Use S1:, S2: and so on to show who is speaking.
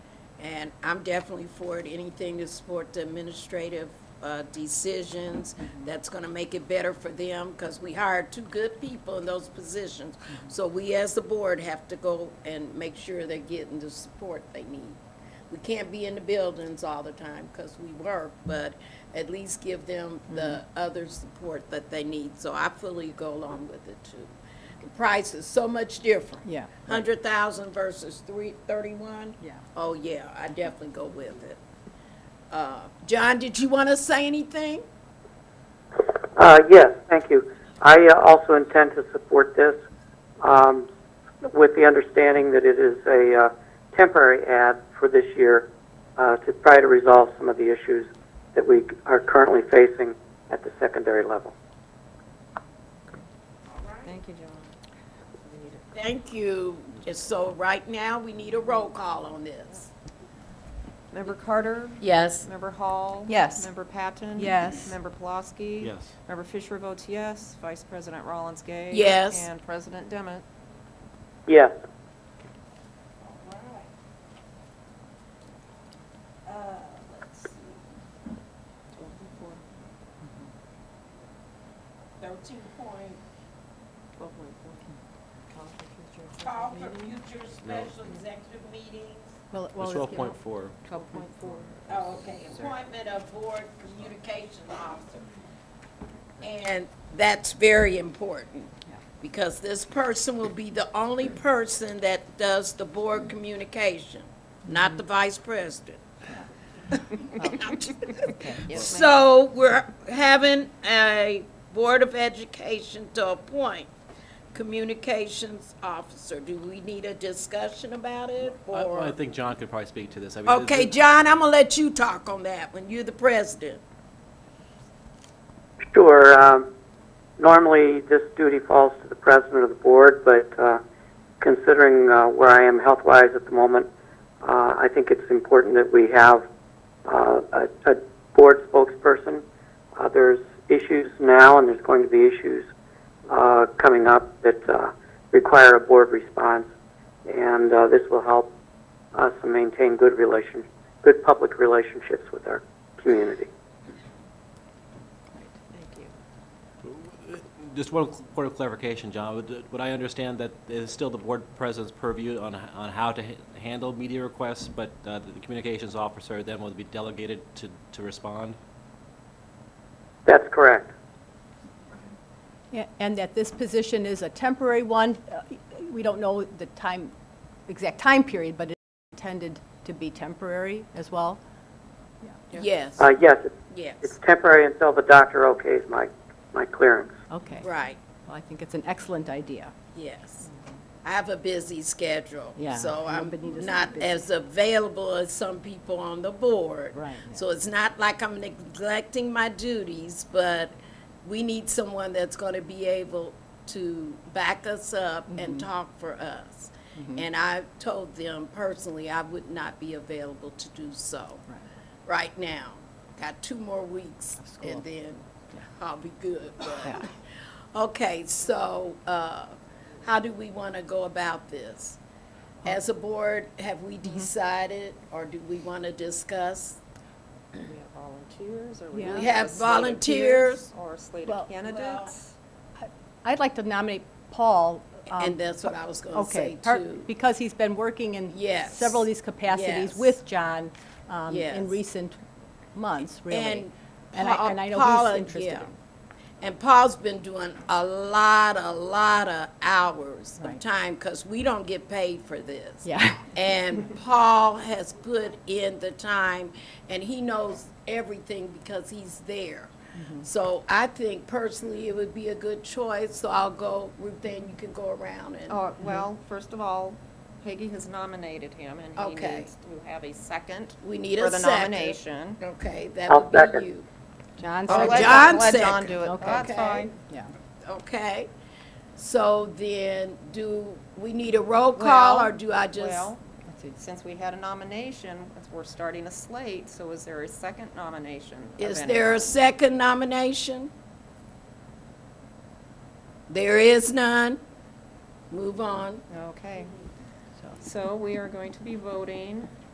S1: And I'm definitely for it, anything to support the administrative uh, decisions that's going to make it better for them, because we hired two good people in those positions. So we, as the board, have to go and make sure they're getting the support they need. We can't be in the buildings all the time, because we work, but at least give them the other support that they need. So I fully go along with it, too. The price is so much different.
S2: Yeah.
S1: Hundred thousand versus three, thirty-one?
S2: Yeah.
S1: Oh, yeah, I definitely go with it. Uh, John, did you want to say anything?
S3: Uh, Yes, thank you. I uh, also intend to support this um, with the understanding that it is a uh, temporary ad for this year uh, to try to resolve some of the issues that we are currently facing at the secondary level.
S2: Thank you, John.
S1: Thank you. Just So right now, we need a roll call on this.
S4: Member Carter?
S5: Yes.
S4: Member Hall?
S2: Yes.
S4: Member Patton?
S2: Yes.
S4: Member Pulaski?
S6: Yes.
S4: Member Fisher votes yes. Vice President Rollins Gay?
S1: Yes.
S4: And President Demmett?
S3: Yes,
S1: Thirteen point call for future special executive meetings.
S6: It's twelve point four.
S2: Twelve point four.
S1: Oh, okay, appointment of board communication officer. And that's very important, because this person will be the only person that does the board communication, not the vice president. So we're having a Board of Education to appoint communications officer. Do we need a discussion about it,
S6: I,
S1: or?
S6: I think John could probably speak to this. I mean, this-
S1: Okay, John, I'm gonna let you talk on that when you're the president.
S3: sure. um, Normally, this duty falls to the president of the board, but uh, considering uh, where I am health-wise at the moment, uh, I think it's important that we have uh, a a board spokesperson. Uh, There's issues now, and there's going to be issues uh, coming up that uh, require a board response, and uh, this will help us maintain good relation, good public relationships with our community.
S6: Just one point of clarification, John. Would, would I understand that it is still the board president's purview on, on how to h- handle media requests, but uh, the communications officer then will be delegated to, to respond?
S3: That's correct.
S7: Yeah, And that this position is a temporary one. Uh, We don't know the time, exact time period, but it's intended to be temporary as well.
S1: Yes,
S3: Uh, yes, it's- it's
S1: yes,
S3: temporary until the doctor okays my, my clearance.
S7: Okay. Well,
S1: right,
S7: I think it's an excellent idea.
S1: yes. I have a busy schedule,
S7: Yeah,
S1: so I'm
S7: nobody doesn't
S1: not
S7: be busy.
S1: as available as some people on the board.
S7: Right, yeah.
S1: So it's not like I'm neglecting my duties, but we need someone that's gonna be able to back us up and
S7: Mm-hmm.
S1: talk for us. And I told them personally, I would not be available to do so. right now. Got two more weeks and then I'll be good.
S7: Yeah.
S1: Okay, so, uh, how do we want to go about this? As a board, have we
S7: Mm-hmm.
S1: decided or do we want to discuss?
S4: We have volunteers, or
S7: we Yeah.
S1: We have volunteers
S4: Or a slate
S7: Well-
S4: of candidates?
S7: I'd like to nominate Paul. um,
S1: and that's what I was going to
S7: Okay,
S1: say
S7: part-
S1: too.
S7: because he's been working in
S1: Yes.
S7: several of these capacities
S1: Yes.
S7: with John um,
S1: Yes.
S7: in recent months, really.
S1: And
S7: And I
S1: Pa-
S7: and I know
S1: Paula-
S7: he's interested.
S1: yeah. And Paul's been doing a lot, a lot of hours of
S7: Right.
S1: time because we don't get paid for this.
S7: Yeah.
S1: And Paul has put in the time and he knows everything because he's there.
S7: Mm-hmm.
S1: So I think personally it would be a good choice, so I'll go, Ruth, then you can go around and,
S4: Oh, well, first of all, Peggy has nominated him, and he
S1: Okay.
S4: needs to have a second
S1: we need
S4: for
S1: a
S4: the
S1: second.
S4: nomination.
S1: Okay, that
S3: I'll
S1: would
S3: second.
S1: be you.
S7: John
S1: Oh,
S4: So
S7: second.
S4: let-
S1: John
S4: Let John
S1: second.
S4: do it.
S7: Okay.
S4: That's
S1: Okay.
S4: fine.
S7: Yeah.
S1: Okay, so then do we need a roll call
S4: Well,
S1: or do I just?
S4: Well, since we had a nomination, we're starting a slate, so is there a second nomination? of
S1: Is
S4: any-
S1: there a second nomination? There is none. Move on.
S4: Okay. So we are going to be voting